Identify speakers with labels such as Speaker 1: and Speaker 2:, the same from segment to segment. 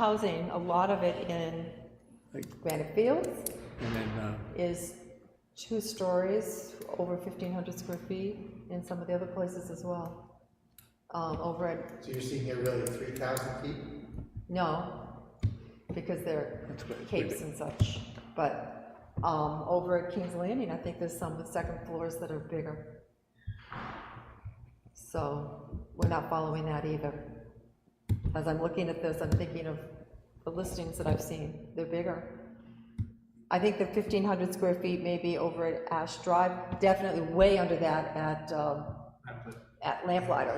Speaker 1: housing, a lot of it in
Speaker 2: Like-
Speaker 1: Granite Fields
Speaker 2: And then, uh,
Speaker 1: is two stories, over fifteen hundred square feet, in some of the other places as well. Um, over at,
Speaker 3: So you're seeing it really three thousand feet?
Speaker 1: no, because they're
Speaker 2: That's what it's
Speaker 1: capes
Speaker 2: really-
Speaker 1: and such, but, um, over at King's Landing, I think there's some with second floors that are bigger. So, we're not following that either. As I'm looking at this, I'm thinking of the listings that I've seen, they're bigger. I think the fifteen hundred square feet may be over at Ash Drive, definitely way under that at, um, at Lamplighter.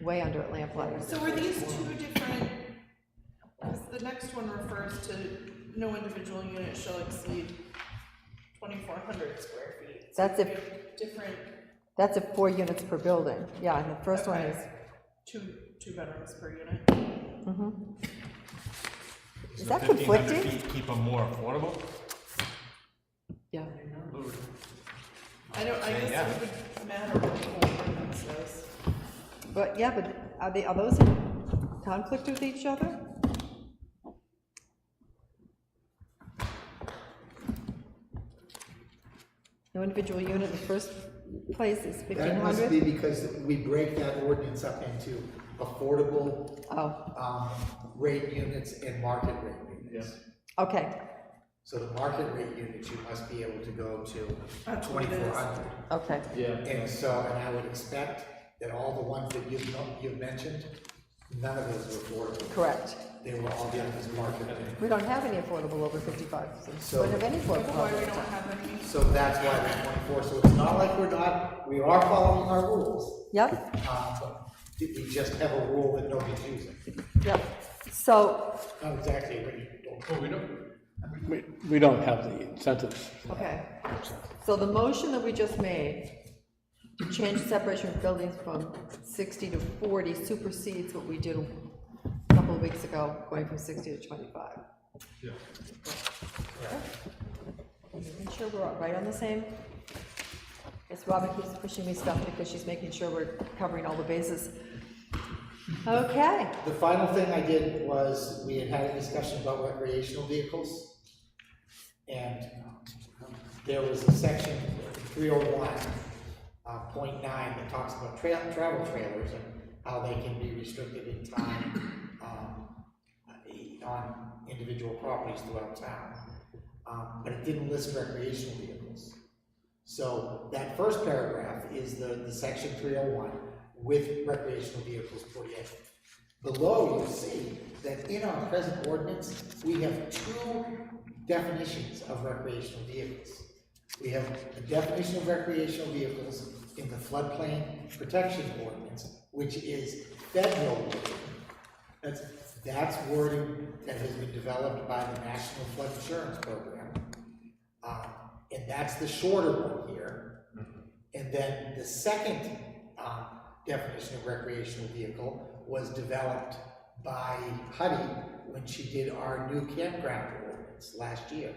Speaker 1: Way under at Lamplighter.
Speaker 4: So are these two different, because the next one refers to no individual unit shall exceed twenty-four hundred square feet. So
Speaker 1: That's if-
Speaker 4: they're Different,
Speaker 1: That's at four units per building, yeah, and the first one
Speaker 4: Okay.
Speaker 1: is,
Speaker 4: two, two bedrooms per unit.
Speaker 1: is that conflicting?
Speaker 5: Keep them more affordable?
Speaker 1: Yeah,
Speaker 4: I don't, I guess it would matter what the whole ordinance says.
Speaker 1: but, yeah, but are they, are those in conflict with each other? No individual unit, the first place is fifteen
Speaker 3: That must be
Speaker 1: hundred?
Speaker 3: because we break that ordinance up into affordable,
Speaker 1: Oh,
Speaker 3: um, rate units and market rate units.
Speaker 1: okay,
Speaker 3: So the market rate units, you must be able to go to
Speaker 4: That's what it is.
Speaker 3: twenty-four hundred.
Speaker 1: okay,
Speaker 3: And so, and I would expect that all the ones that you've, no- you've mentioned, none of those were affordable.
Speaker 1: correct.
Speaker 3: They were all done as market rate.
Speaker 1: We don't have any affordable over fifty-five, so
Speaker 3: So-
Speaker 1: we don't have any
Speaker 4: That's
Speaker 1: affordable.
Speaker 4: why
Speaker 1: over
Speaker 4: we don't
Speaker 1: 55.
Speaker 4: have any,
Speaker 3: So that's why they're twenty-four, so it's not like we're not, we are following our rules.
Speaker 1: Yep.
Speaker 3: Um, but We just have a rule that nobody's using.
Speaker 1: Yep, so,
Speaker 3: Not exactly what you don't.
Speaker 5: Well, we don't,
Speaker 2: we, we don't have the incentives.
Speaker 1: okay, so the motion that we just made, to change separation of buildings from sixty to forty supersedes what we did a couple of weeks ago, going from sixty to twenty-five. Making sure we're all right on the same. Yes, Robin keeps pushing me stuff because she's making sure we're covering all the bases. Okay,
Speaker 3: The final thing I did was, we had had a discussion about recreational vehicles. And um, there was a section, three oh one, uh, point nine, that talks about trail, travel trailers and how they can be restricted in time, um, on individual properties throughout town. Um, but it didn't list recreational vehicles. So that first paragraph is the, the section three oh one with recreational vehicles put in. Below, you'll see that in our present ordinance, we have two definitions of recreational vehicles. We have a definition of recreational vehicles in the floodplain protection ordinance, which is federal law. That's, that's wording that has been developed by the National Flood Insurance Program. Uh, and that's the shorter one here. And then the second, um, definition of recreational vehicle was developed by Huddy when she did our new campground ordinance last year.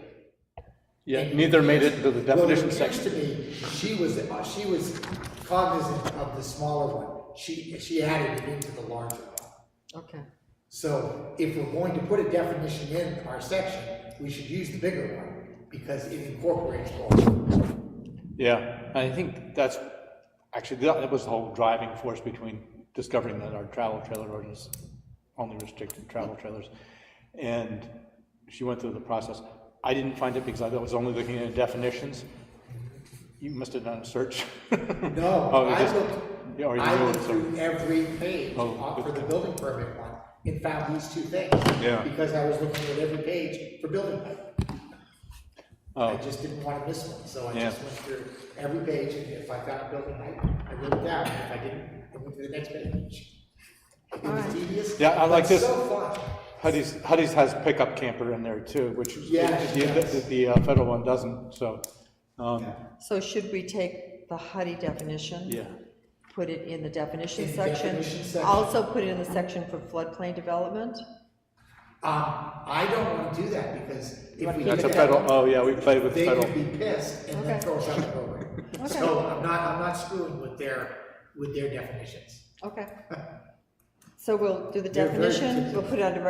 Speaker 2: Yeah, neither made it into the definition
Speaker 3: Well, it appears
Speaker 2: section.
Speaker 3: to me, she was, uh, she was cognizant of the smaller one, she, she added it into the larger one.
Speaker 1: okay,
Speaker 3: So if we're going to put a definition in our section, we should use the bigger one, because it incorporates both.
Speaker 2: Yeah, I think that's, actually, that that was the whole driving force between discovering that our travel trailer ordinance only restricted travel trailers. And she went through the process. I didn't find it because I was only looking at definitions. You must have done a search.
Speaker 3: No,
Speaker 2: Oh, it
Speaker 3: I
Speaker 2: just-
Speaker 3: looked,
Speaker 2: yeah, or you
Speaker 3: I
Speaker 2: knew it,
Speaker 3: looked
Speaker 2: so-
Speaker 3: through every page
Speaker 2: Oh,
Speaker 3: uh, for
Speaker 2: okay.
Speaker 3: the building permit one, and found these two things.
Speaker 2: Yeah.
Speaker 3: Because I was looking at every page for building permit. I
Speaker 2: Oh,
Speaker 3: just didn't want to miss one, so I
Speaker 2: Yeah.
Speaker 3: just went through every page, and if I found a building height, I wrote it down, if I didn't, I went to the next page. It was tedious.
Speaker 2: Yeah, I like
Speaker 3: but
Speaker 2: this.
Speaker 3: So fun.
Speaker 2: Huddy's, Huddy's has pickup camper in there too, which
Speaker 3: Yeah, she
Speaker 2: the- the,
Speaker 3: does.
Speaker 2: the uh, federal one doesn't, so, um,
Speaker 1: so should we take the Huddy definition?
Speaker 2: yeah.
Speaker 1: put it in the definition
Speaker 3: In the
Speaker 1: section.
Speaker 3: definition section.
Speaker 1: Also put it in the section for floodplain development.
Speaker 3: Um, I don't want to do that, because if we.
Speaker 2: That's
Speaker 3: do
Speaker 2: a
Speaker 3: that,
Speaker 2: federal, oh, yeah, we played with the
Speaker 3: They
Speaker 2: federal.
Speaker 3: could be pissed and then
Speaker 1: Okay.
Speaker 3: throw us out of the program. So I'm not, I'm not screwing with their, with their definitions.
Speaker 1: Okay. So we'll do the
Speaker 3: They're very
Speaker 1: definition, we'll
Speaker 3: particular.
Speaker 1: put it under